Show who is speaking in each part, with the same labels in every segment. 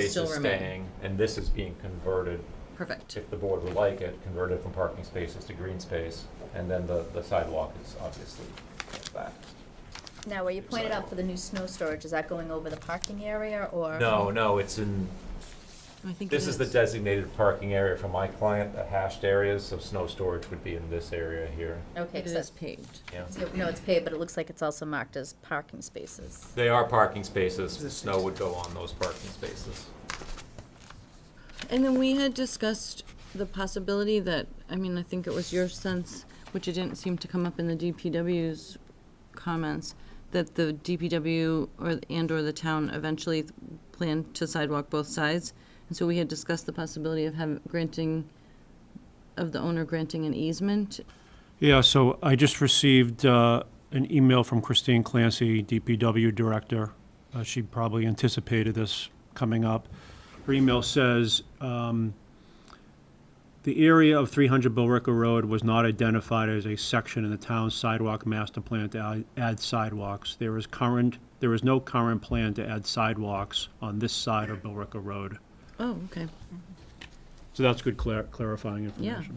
Speaker 1: space
Speaker 2: Still
Speaker 1: is
Speaker 2: remain.
Speaker 1: staying, and this is being converted,
Speaker 2: Perfect.
Speaker 1: if the board would like it, converted from parking spaces to green space, and then the, the sidewalk is obviously that.
Speaker 3: Now, where you pointed out for the new snow storage, is that going over the parking area or?
Speaker 1: No, no, it's in,
Speaker 2: I think
Speaker 1: this
Speaker 2: it
Speaker 1: is the designated parking area for my client, the hashed areas, so snow storage would be in this area here,
Speaker 3: Okay,
Speaker 2: It
Speaker 3: 'cause
Speaker 2: is
Speaker 3: that's,
Speaker 2: paved.
Speaker 1: yeah.
Speaker 3: no, it's paved, but it looks like it's also marked as parking spaces.
Speaker 1: They are parking spaces, the snow would go on those parking spaces.
Speaker 2: And then we had discussed the possibility that, I mean, I think it was your sense, which it didn't seem to come up in the DPW's comments, that the DPW or, and/or the town eventually th- plan to sidewalk both sides. And so we had discussed the possibility of having, granting, of the owner granting an easement.
Speaker 4: Yeah, so I just received uh, an email from Christine Clancy, DPW Director. Uh, She probably anticipated this coming up. Her email says, um, "The area of 300 Billrica Road was not identified as a section in the town's sidewalk master plan to add- add sidewalks. There is current, there is no current plan to add sidewalks on this side of Billrica Road."
Speaker 2: Oh, okay.
Speaker 4: So that's good clar- clarifying information.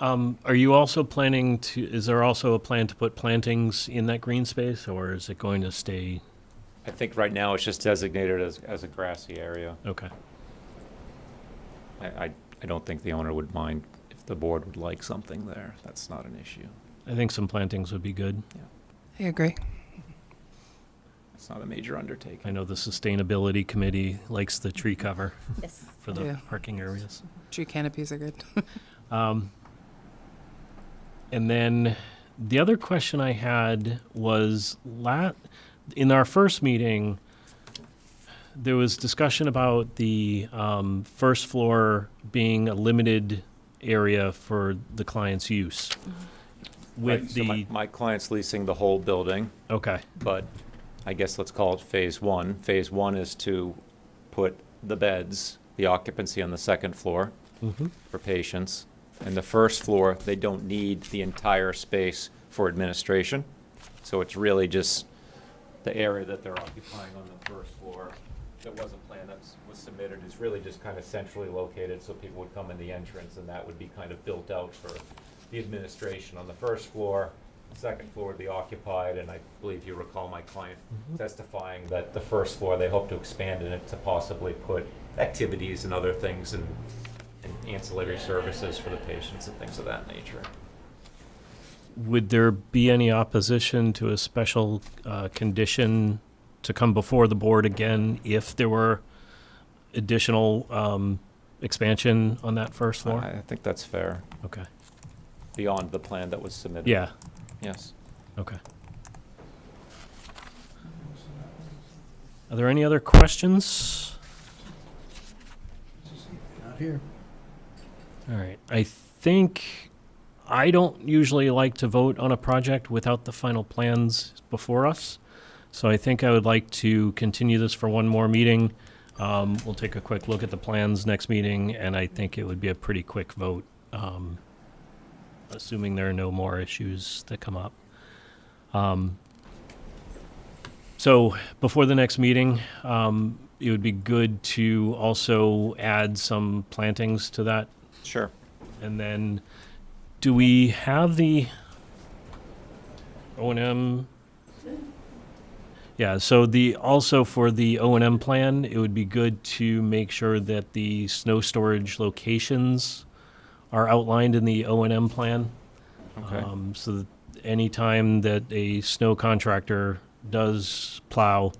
Speaker 5: Um, are you also planning to, is there also a plan to put plantings in that green space, or is it going to stay,
Speaker 1: I think right now it's just designated as, as a grassy area.
Speaker 5: okay?
Speaker 1: I, I, I don't think the owner would mind if the board would like something there, that's not an issue.
Speaker 5: I think some plantings would be good.
Speaker 6: I agree.
Speaker 1: It's not a major undertaking.
Speaker 5: I know the sustainability committee likes the tree cover
Speaker 3: Yes.
Speaker 5: for the
Speaker 6: Yeah.
Speaker 5: parking areas.
Speaker 6: Tree canopies are good.
Speaker 5: Um, and then the other question I had was la- in our first meeting, there was discussion about the um, first floor being a limited area for the client's use. With
Speaker 1: Right, so
Speaker 5: the
Speaker 1: my- My client's leasing the whole building,
Speaker 5: okay,
Speaker 1: but I guess let's call it phase one. Phase one is to put the beds, the occupancy on the second floor
Speaker 5: Mm-hmm.
Speaker 1: for patients. And the first floor, they don't need the entire space for administration. So it's really just the area that they're occupying on the first floor that wasn't planned, that was submitted, is really just kind of centrally located, so people would come in the entrance, and that would be kind of built out for the administration on the first floor. The Second floor would be occupied, and I believe you recall my client
Speaker 5: Mm-hmm.
Speaker 1: testifying that the first floor, they hope to expand in it to possibly put activities and other things and and ancillary services for the patients and things of that nature.
Speaker 5: would there be any opposition to a special uh, condition to come before the board again if there were additional um, expansion on that first floor?
Speaker 1: I I think that's fair,
Speaker 5: Okay.
Speaker 1: beyond the plan that was submitted.
Speaker 5: Yeah.
Speaker 1: Yes.
Speaker 5: Okay. Are there any other questions? Not here. All right, I think, I don't usually like to vote on a project without the final plans before us. So I think I would like to continue this for one more meeting. Um, we'll take a quick look at the plans next meeting, and I think it would be a pretty quick vote, um, assuming there are no more issues that come up. Um, so before the next meeting, um, it would be good to also add some plantings to that.
Speaker 1: Sure.
Speaker 5: And then, do we have the O and M? Yeah. So the also for the O and M plan, it would be good to make sure that the snow storage locations are outlined in the O and M plan.
Speaker 1: Okay.
Speaker 5: Um, so that any time that a snow contractor does plow,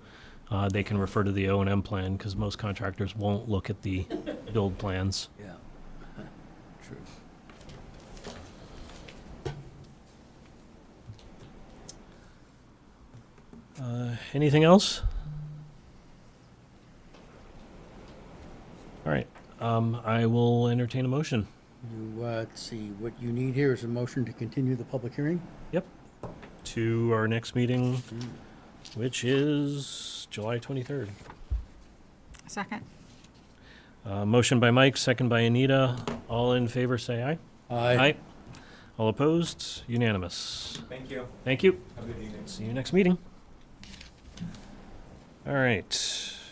Speaker 5: uh, they can refer to the O and M plan because most contractors won't look at the build plans.
Speaker 7: Yeah, true.
Speaker 5: Uh, anything else? All right. Um, I will entertain a motion.
Speaker 7: You, uh, let's see, what you need here is a motion to continue the public hearing?
Speaker 5: to our next meeting, which is July 23rd.
Speaker 8: Second.
Speaker 5: Uh, motion by Mike, second by Anita. All in favor, say aye. Aye. All opposed? Unanimous.
Speaker 1: Thank you.
Speaker 5: Thank you.
Speaker 1: Have a good evening.
Speaker 5: See you next meeting. All right.